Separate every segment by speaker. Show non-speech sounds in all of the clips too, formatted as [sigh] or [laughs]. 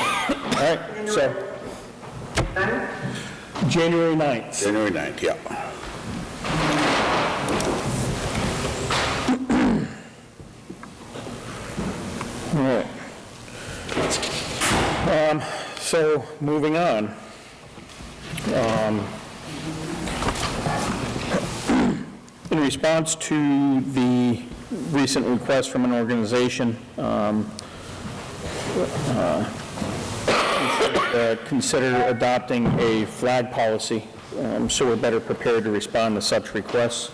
Speaker 1: All right, so, January 9th.
Speaker 2: January 9th, yeah.
Speaker 1: All right. Um, So, moving on. Um, In response to the recent request from an organization, um, uh, consider adopting a flag policy, um, so we're better prepared to respond to such requests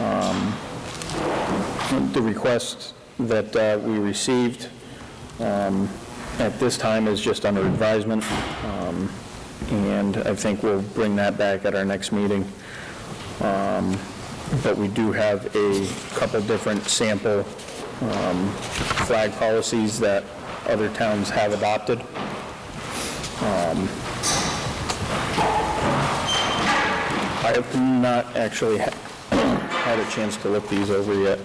Speaker 1: Um, the request that uh, we received um, at this time is just under advisement, um, and I think we'll bring that back at our next meeting. Um, But we do have a couple different sample um, flag policies that other towns have adopted. Um, I have not actually ha- had a chance to look these over yet.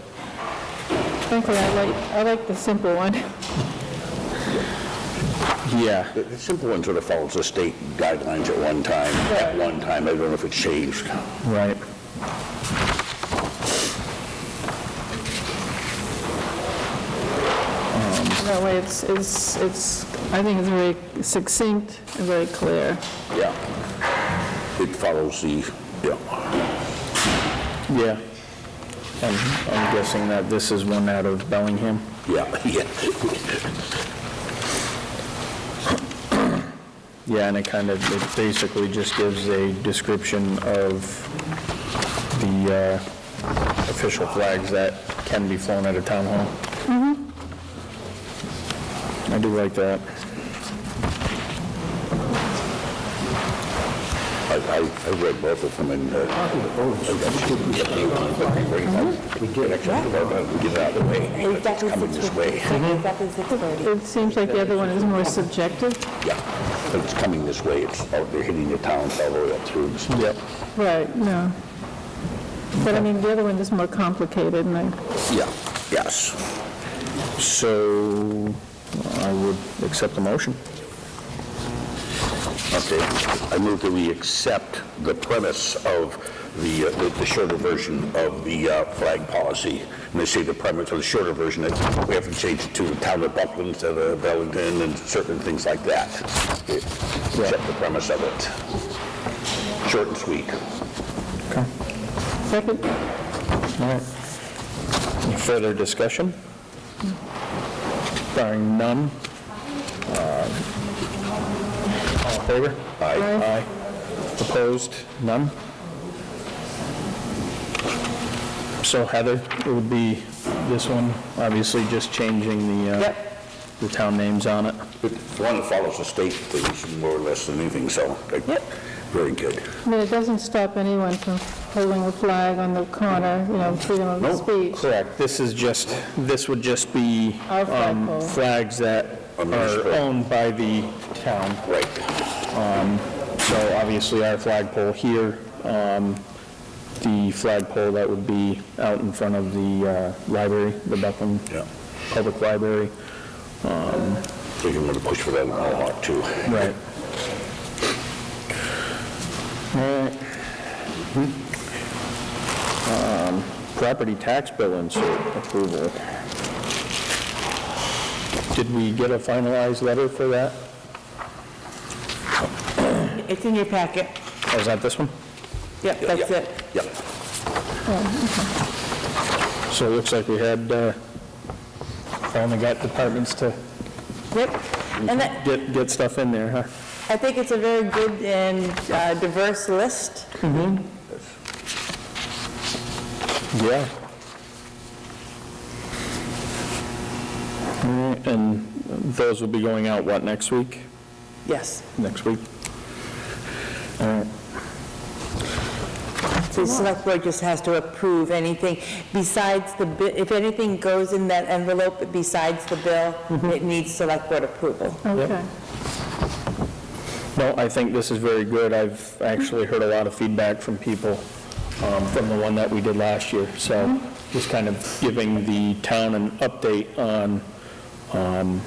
Speaker 3: Frankly, I like, I like the simple one.
Speaker 1: Yeah.
Speaker 2: The- The simple one sort of follows the state guidelines at one time, at one time, I don't know if it changed.
Speaker 1: Right.
Speaker 3: That way it's, it's, it's, I think it's very succinct and very clear.
Speaker 2: Yeah. It follows the, yeah.
Speaker 1: Yeah. And I'm guessing that this is one out of Bellingham.
Speaker 2: Yeah, [laughs] yeah.
Speaker 1: Yeah, and it kind of, it basically just gives a description of the uh, official flags that can be flown at a town hall. Mm-hmm. I do like that.
Speaker 2: I, I I read both of them and. uh, Mm-hmm. We did. Get it out of the way. It's coming this way.
Speaker 3: It seems like the other one is more subjective.
Speaker 2: Yeah, but it's coming this way, it's, out there hitting the towns all the way up through.
Speaker 1: Yep.
Speaker 3: Right, no. But I mean, the other one is more complicated, and I,
Speaker 2: Yeah, yes.
Speaker 1: So I would accept the motion.
Speaker 2: Okay, I move that we accept the premise of the, uh, the- the shorter version of the uh, flag policy. And they say the premise of the shorter version, that we have to change it to the town of Buckland instead of Wellington and certain things like that. Accept the premise of it. Short and sweet.
Speaker 3: second,
Speaker 1: All right. Any further discussion? Barring none. uh, All in favor?
Speaker 3: Aye.
Speaker 1: Opposed? None? So Heather, it would be this one, obviously just changing the, uh, the town names on it.
Speaker 2: It's one that follows the state things more or less than anything, so. like, Very good.
Speaker 3: I mean, it doesn't stop anyone from holding a flag on the corner, you know, freedom of speech.
Speaker 1: Correct. This is just, this would just be
Speaker 3: Our
Speaker 1: um,
Speaker 3: flagpole.
Speaker 1: flags that
Speaker 2: Our municipal.
Speaker 1: are owned by the town.
Speaker 2: Right.
Speaker 1: So obviously, our flagpole here, um, the flagpole that would be out in front of the uh, library, the Buckland
Speaker 2: Yeah.
Speaker 1: Public Library.
Speaker 2: So you want to push for that in Mohawk, too.
Speaker 1: Right. All right. Um, Property tax bill insert approval. Did we get a finalized letter for that?
Speaker 4: It's in your packet.
Speaker 1: Oh, Is that this one?
Speaker 4: Yep, that's
Speaker 2: Yeah,
Speaker 4: it.
Speaker 2: Yeah.
Speaker 1: So it looks like we had, uh, finally got departments to
Speaker 4: Yep. And I
Speaker 1: get, get stuff in there, huh?
Speaker 4: I think it's a very good and uh, diverse list.
Speaker 1: Yeah. All right, And those will be going out, what, next week?
Speaker 4: Yes.
Speaker 1: Next week? All right,
Speaker 4: The select board just has to approve anything besides the, bi- if anything goes in that envelope besides the bill, it needs select board approval.
Speaker 3: Okay.
Speaker 1: No, I think this is very good. I've actually heard a lot of feedback from people um, from the one that we did last year. Mm-hmm. So just kind of giving the town an update on um,